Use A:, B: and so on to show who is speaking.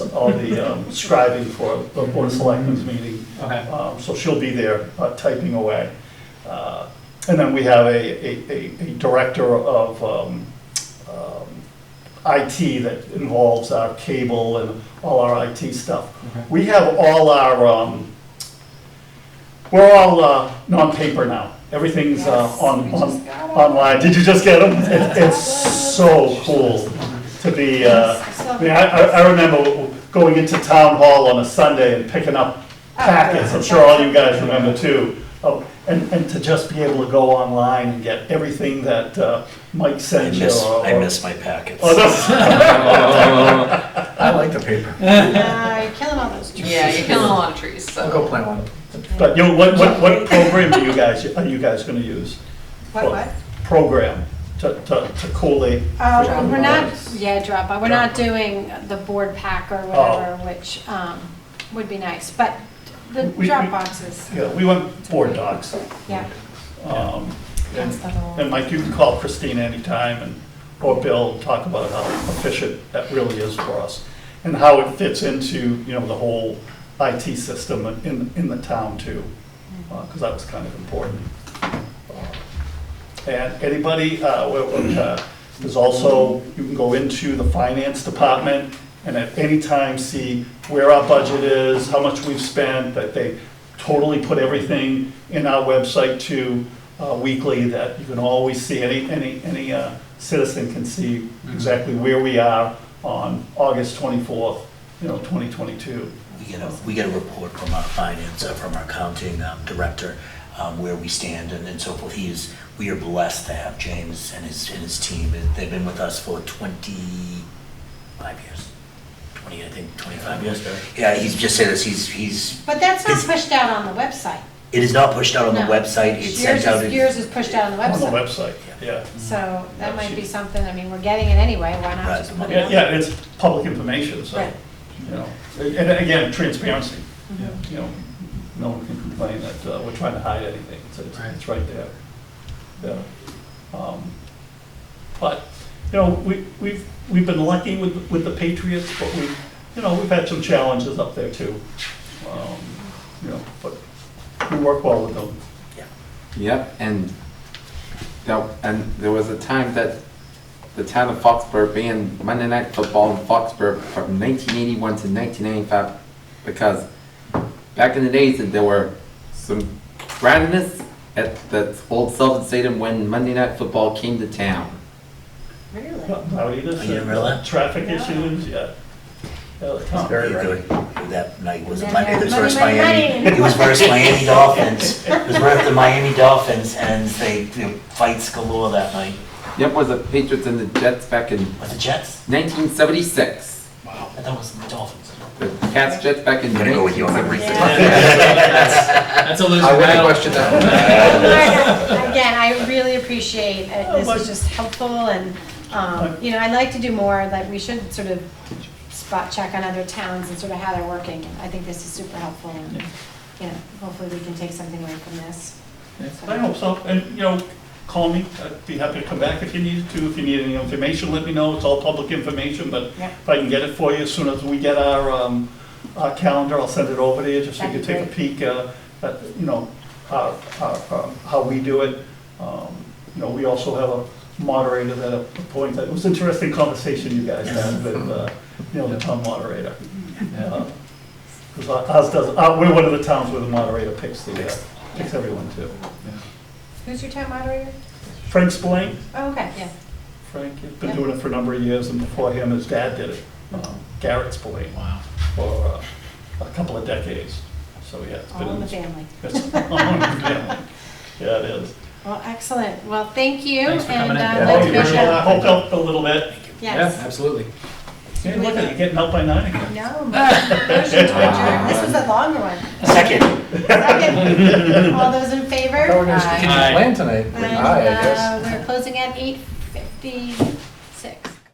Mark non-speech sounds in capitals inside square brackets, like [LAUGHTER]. A: all the um, scribing for the Board of Selectmen's meeting.
B: Okay.
A: Um, So she'll be there uh, typing away. Uh, And then we have a, a- a, a director of um, um, IT that involves our cable and all our IT stuff.
B: Okay.
A: We have all our, um, we're all uh, non-paper now. Everything's uh,
C: Yes,
A: on,
C: we
A: on, uh,
C: just got 'em.
A: online. Did you just get them? It- It's so cool to be, uh, I mean, I, I I remember going into town hall on a Sunday and picking up
C: Oh,
A: packets, I'm sure all you guys remember too. Oh, And, and to just be able to go online and get everything that uh, Mike
D: I
A: sent you.
D: miss,
A: or-
D: I miss my packets.
A: or those-
E: I like the paper.
C: Yeah, you're killing all those trees.
F: Yeah, you're killing a lot of trees,
E: I'll go
F: so.
E: plant one.
A: [LAUGHS] But you, know, what, what,
C: [LAUGHS]
A: what program do you guys, are you guys gonna use?
C: What, what?
A: Program to, to, to collate.
C: Um,
F: Dropbox.
C: we're not, yeah, Dropbox, we're not doing the board pack or whatever, which, um, would be nice, but the
A: Oh. We- we-
C: Dropbox is,
A: Yeah, we want board docs.
C: yeah.
A: Um,
F: That's the whole-
A: And Mike, you can call Christine anytime and, or Bill, and talk about how efficient that really is for us and how it fits into, you know, the whole IT system in, in the town too, because that was kind of important. And anybody, uh, what- what, uh, there's also, you can go into the finance department and at any time see where our budget is, how much we've spent, that they totally put everything in our website too, uh, weekly, that you can always see, any, any, any uh, citizen can see exactly where we are on August 24th, you know, 2022.
D: We get a, we get a report from our finance, uh, from our accounting um, director, um, where we stand and and so forth. He is, we are blessed to have James and his, and his team. They've been with us for 25 years, 20, I think, 25 years. Yeah, he's just said this, he's, he's,
C: But that's not
D: Is-
C: pushed out on the website.
D: it is not pushed out on the
C: No.
D: website, it's
C: Yours
D: sent out.
C: is,
D: in-
C: yours is pushed out on the
A: On the Mm.
C: website,
A: website, yeah.
C: so that might be something, I mean, we're getting it anyway, why not
D: Right.
C: just put it
A: Yeah,
C: out?
A: yeah, it's public information, so,
C: Right.
A: you know, and again, transparency,
B: Yeah.
A: you know, no one can complain that uh, we're trying to hide anything, it's, it's- it's right there. Yeah. Um, But, you know, we, we've, we've been lucky with, with the Patriots, but we, you know, we've had some challenges up there too. Um, You know, but we work well with them.
G: Yep, and that, and there was a time that the town of Foxborough banned Monday Night Football in Foxborough from nineteen eighty-one to nineteen ninety-five because back in the days, that there were some randomness at the old Sullivan Stadium when Monday Night Football came to town.
C: Really?
A: Rowdy, this uh,
D: Are you really?
A: Traffic issues, yeah. Yeah, the town.
D: Very good. That night was
C: Yeah,
D: Miami, it was
C: Miami,
D: versus
C: Miami.
D: Miami, it was versus Miami Dolphins. It was versus the Miami Dolphins and they, they fights galore that night.
G: Yep, was the Patriots and the Jets back in
D: Was it Jets?
G: nineteen seventy-six.
D: I thought it was the Dolphins.
G: The Cats Jets back in
D: I'm gonna go with you
G: nineteen
D: on that reason.
G: seventy-six.
A: [LAUGHS]
B: That's a losing
E: I wouldn't
B: battle.
E: question that.
C: Again, I really appreciate it. This is just helpful and, um, you know, I'd like to do more, like, we should sort of spot check on other towns and sort of how they're working. I think this is super helpful and, you know, hopefully we can take something away from this.
A: I hope so, and, you know, call me, I'd be happy to come back if you need to, if you need any information, let me know, it's all public information, but
C: Yeah.
A: if I can get it for you, as soon as we get our, um, our calendar, I'll send it over to you, just so you can
C: That'd
A: take a
C: be
A: peek, uh, at, you know, how, how, um, how we do it. Um, You know, we also have a moderator that appoints, it was an interesting conversation you guys had with, uh, you know, the town
C: [LAUGHS]
A: moderator. Because ours does, uh, we're one of the towns where the moderator picks the, uh, picks everyone too.
C: Who's your town moderator?
A: Frank Spillane,
C: Oh, okay, yeah.
A: Frank, he's been doing it for a number of years, and before him, his dad did it, um, Garrett Spillane,
B: Wow.
A: for uh, a couple of decades. So, yeah, it's been.
C: All in the family.
A: it's [LAUGHS] all in the family. Yeah, it is.
C: Well, excellent. Well, thank you.
B: Thanks for coming in.
C: And
B: Yeah,
C: uh, I'd like to
B: thank
C: wish
B: you.
C: you,
A: I hope helped a little bit.
B: Yeah,
C: yes.
B: absolutely.
A: Hey, look at you, getting out by nine again.
C: No, motion to adjourn. This was a longer one.
D: Second.
B: [LAUGHS]
C: Second. All those in
E: I thought we were
C: favor?
E: gonna
F: Aye.
E: plan tonight.
C: And
E: Aye, I guess.
C: uh, we're closing at eight fifty-six.